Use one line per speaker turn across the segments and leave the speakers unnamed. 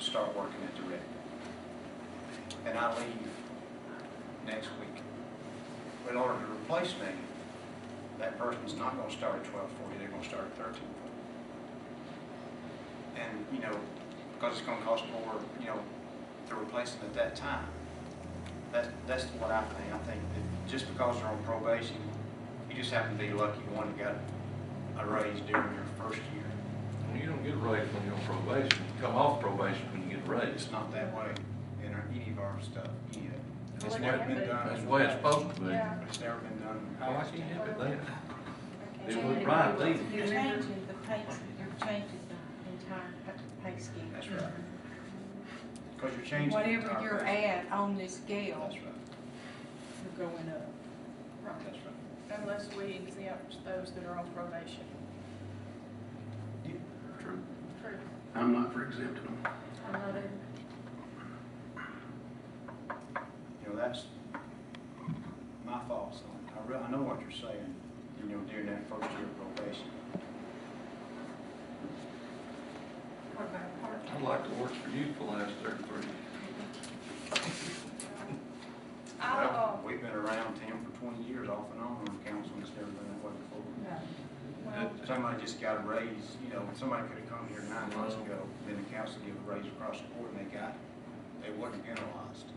start working at the rec. And I leave next week. But in order to replace me, that person's not gonna start at twelve forty, they're gonna start at thirteen forty. And, you know, because it's gonna cost more, you know, to replace them at that time. That, that's what I think. I think that just because they're on probation, you just happen to be lucky one got a raise during your first year.
Well, you don't get a raise when you're on probation. You come off probation when you get
It's
raised.
not that way in our, any of our stuff yet. It's
Well,
never
yeah,
been
but-
done.
That's the way it's supposed to be.
Yeah.
It's never been done.
How much you have it there? They
Change
were
it.
right, they-
You
You're
remember-
changing the pay, you're changing the entire pay scheme.
That's right. Because you're changing. the
Whatever
entire
you're
thing.
at on this
That's
scale,
right,
you're going up.
that's
Right.
right.
Unless we exempt those that are on probation.
True.
True.
I'm not for exempting them.
I'm not in.
You know, that's my fault, so I really, I know what you're saying, you know, during that first year of probation.
What about part-
I'd like to work for you for the last thirty-three.
Well,
I'll,
We've been around Tim for twenty years off and on on council, and it's never been that way before.
No.
well,
Somebody just got a raise, you know, somebody could have come here nine months ago, then the council gave a raise across the board, and they got, it. they wasn't penalized.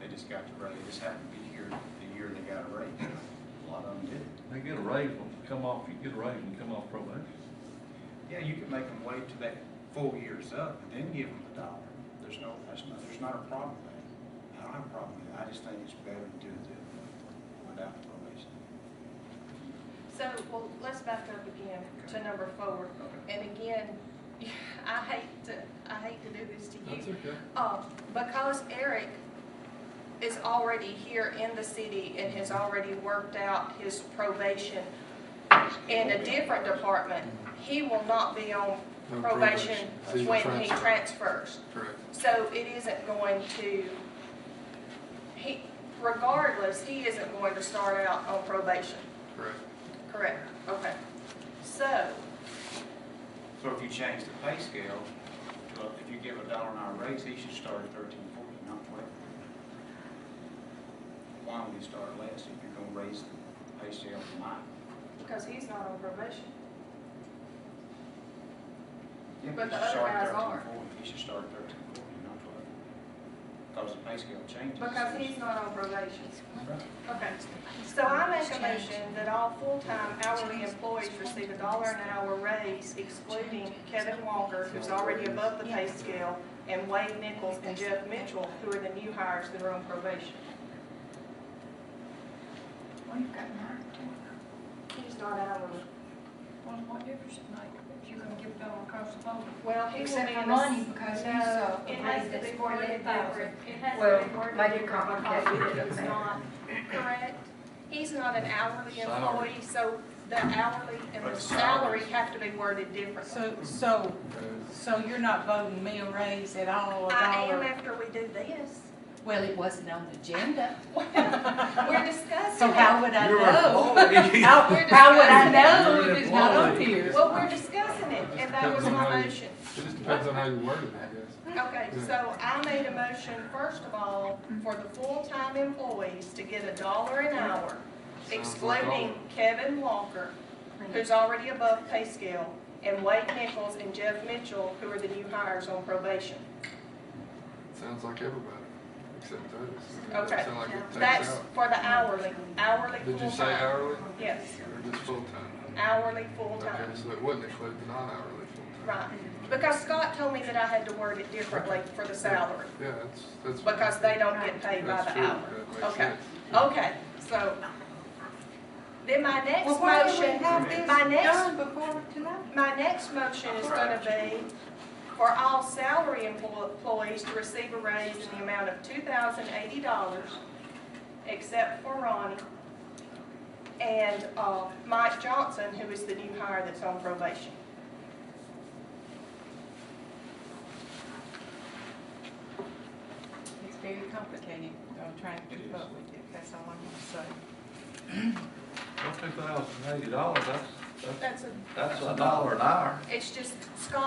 They just got the raise, just happened to be here the year they got a raise, a lot of them did.
They get a raise when you come off, you get a raise when you come off probation.
Yeah, you can make them wait till that full year's up and then give them the dollar. There's no, that's not, there's not a problem with that. I don't have a problem with it. I just think it's better to do it without the probation.
so, well, let's back up again to number four. And again, I hate to, I hate to do this to you.
okay.
Uh, because Eric is already here in the city and has already worked out his probation in a different department, he will not be on
No probation.
probation
He's a
when he
transfer.
transfers.
Correct.
So it isn't going to, he, regardless, he isn't going to start out on probation,
Correct.
correct? Okay. So,
So if you change the pay scale, to- if you give a dollar an hour raise, he should start at thirteen forty, not twelve. Why would he start less if you're gonna raise the pay scale from mine?
because he's not on probation.
Yeah,
But
he
the
should
other
start at
guys are.
13.40. He should start at thirteen forty, not twelve. Because the pay scale changes.
Because he's not on probation.
Right.
Okay, so I make a motion that all full-time hourly employees receive a dollar an hour raise excluding Kevin Walker, who's already above the pay scale, and Wade Nichols and Jeff Mitchell, who are the new hires that are on probation.
Well, you've got nine to ten.
He's not hourly.
Well, what difference it make if you're gonna give it all across the board?
Well, he will
Except
be
for
in
money,
the.
because he's,
No,
uh,
it has to
raised
be worded
at forty-eight thousand.
different. It has
Well,
to be worded
make it
different because
complicated,
It's
doesn't
not correct. He's not an hourly
Salary.
employee, so the hourly and
But
the
the salary-
salary have to be worded differently.
So, so, so you're not voting me a raise at all, a
I am
dollar?
after we do this.
Well, it wasn't on the agenda.
We're discussing
So how
it.
would I
You're an
know?
employee.
How,
We're
how would I
discussing-
know
You're
if
an
it's not on
employee.
here?
Well, we're discussing it, and that was my motion.
It just depends on how you word it, I guess.
Okay, so I made a motion, first of all, for the full-time employees to get a dollar an hour, excluding Kevin Walker, who's already above pay scale, and Wade Nichols and Jeff Mitchell, who are the new hires on probation.
Sounds like everybody, except us.
Okay,
Sound like it
That's
takes out.
for the hourly, hourly
Did you say
full-time.
hourly
Yes,
or just full-time?
hourly
Okay,
full-time.
so it wouldn't include the non-hourly full-time.
Right, because Scott told me that I had to word it differently for the salary,
Yeah, that's, that's.
because they don't get paid by
That's
the
true.
hour.
That makes
Okay,
sense.
okay, so, then my next
Well, why don't we
motion,
have this
my next,
done before tonight?
my next motion is gonna be for all salary emplo- employees to receive a raise in the amount of two thousand eighty dollars, except for Ronnie and, uh, Mike Johnson, who is the new hire that's on probation.
It's very complicated, I'm trying to keep up with it, that's all I'm gonna say.
Well, two thousand eighty dollars, that's, that's,
That's a,
that's a dollar an hour.
it's just Scott